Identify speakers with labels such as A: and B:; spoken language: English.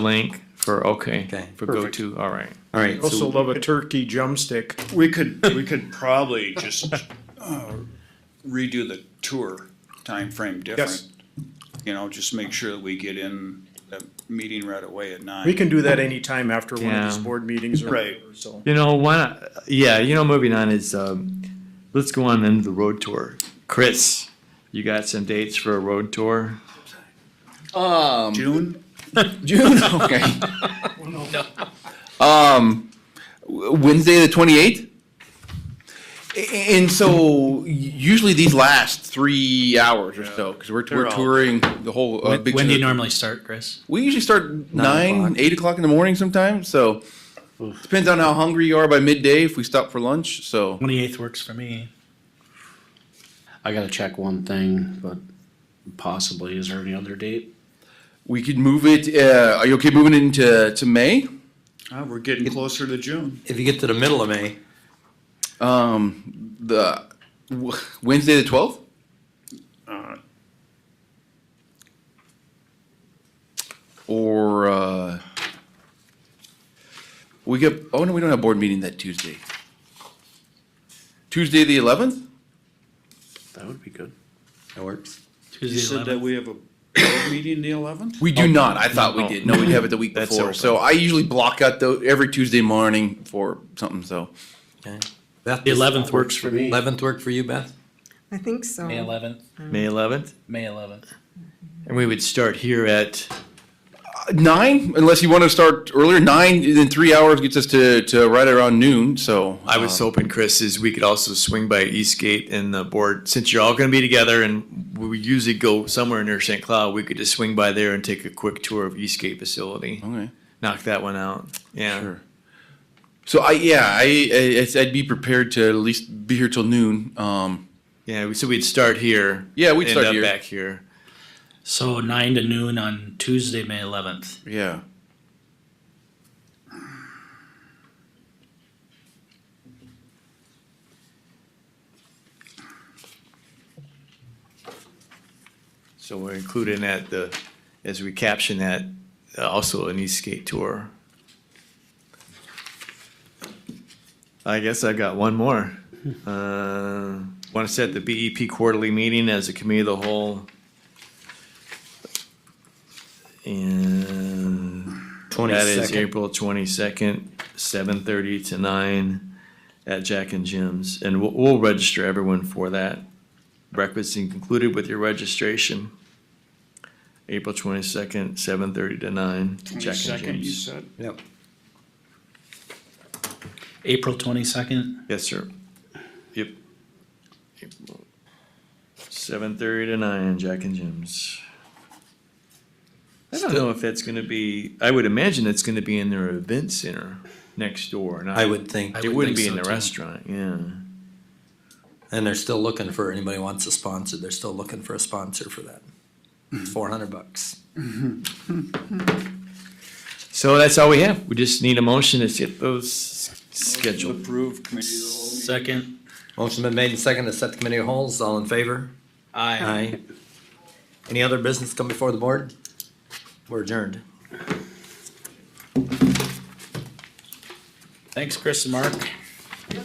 A: link for, okay,
B: Okay.
A: for
C: Perfect.
A: go-to, all right.
B: All right,
C: Also
B: so
C: love a turkey drumstick.
D: We could, we could probably just uh, redo the tour timeframe different. You know, just make sure that we get in the meeting right away at nine.
C: We can do that anytime after one of these
A: Yeah.
C: board meetings or
D: Right.
C: whatever, so.
A: You know, why not, yeah, you know, moving on is, um, let's go on into the road tour. Chris, you got some dates for a road tour?
E: Um,
D: June,
E: June. Okay. um, w- Wednesday the twenty eighth. And so usually these last three hours or so because we're,
D: They're
E: we're
D: all-
E: touring the whole. Uh,
F: When,
E: big
F: when do you
E: chunk of-
F: normally start, Chris?
E: We usually start nine,
B: o'clock.
E: eight o'clock in the morning sometimes. So depends on how hungry you are by midday if we stop for lunch. So
F: Twenty eighth works for me.
G: I gotta check one thing, but possibly, is there any other date?
E: we could move it. Uh, are you okay moving into to May?
D: Uh, we're getting closer to June.
B: if you get to the middle of May,
E: Um, the w- Wednesday the twelfth.
D: Uh,
E: or uh, we get. Oh no, we don't have board meeting that Tuesday. Tuesday the eleventh.
G: That would be good.
B: that works.
D: You
F: Tuesday
D: said that
F: 11th.
D: we have a board meeting the eleventh?
E: We do not. I thought we
A: No.
E: did. Oh, No, we have it the week
A: That's
E: before.
A: open.
E: So I usually block out though every Tuesday morning for something. So
B: Beth,
F: The eleventh works for me.
B: Eleventh work for you, Beth?
H: I think so.
F: May eleventh.
A: May eleventh?
F: May eleventh.
A: And we would start here at,
E: Uh, nine, unless you want to start earlier. Nine in three hours gets us to to right around noon. So
A: I was hoping, Chris, is we could also swing by Eastgate and the board, since you're all gonna be together and we usually go somewhere near St. Cloud, we could just swing by there and take a quick tour of Eastgate facility.
E: uh, Okay.
A: Knock that one out, yeah.
E: Oh. Sure. So I yeah I, I I'd- I'd be prepared to at least be here till noon. Um,
A: Yeah, we- so we'd start here.
E: Yeah, we'd
A: end
E: start
A: up
E: here.
A: Back here.
F: So nine to noon on Tuesday, May eleventh.
E: yeah.
A: So we're including that, the, as we caption that, uh, also an Eastgate tour. I guess I got one more. Uh, want to set the BEP quarterly meeting as a committee of the whole. And that is
B: 22nd.
A: April twenty-second, seven thirty to nine at Jack and Jim's. And we'll, we'll register everyone for that. Breakfast is concluded with your registration. April twenty-second, seven thirty to nine, Jack and
D: Twenty-second, you
A: Jim's.
D: said?
B: Yep.
F: April twenty second.
A: Yes, sir. Yep. Seven thirty to nine, Jack and Jim's. I don't know if that's gonna be, I would imagine it's gonna be in their event center next door, not.
B: I would think,
F: I
A: It
F: would
A: wouldn't be
F: think
A: in
F: so,
A: the
F: too.
A: restaurant, yeah.
B: and they're still looking for anybody who wants a sponsor. They're still looking for a sponsor for that. Four hundred bucks.
A: So that's all we have. We just need a motion to get those scheduled.
D: Approved committee of the whole.
F: Second.
B: Motion been made and seconded to set the committee of holes. All in favor?
F: Aye.
B: Any other business come before the board? We're adjourned.
F: Thanks, Chris and Mark.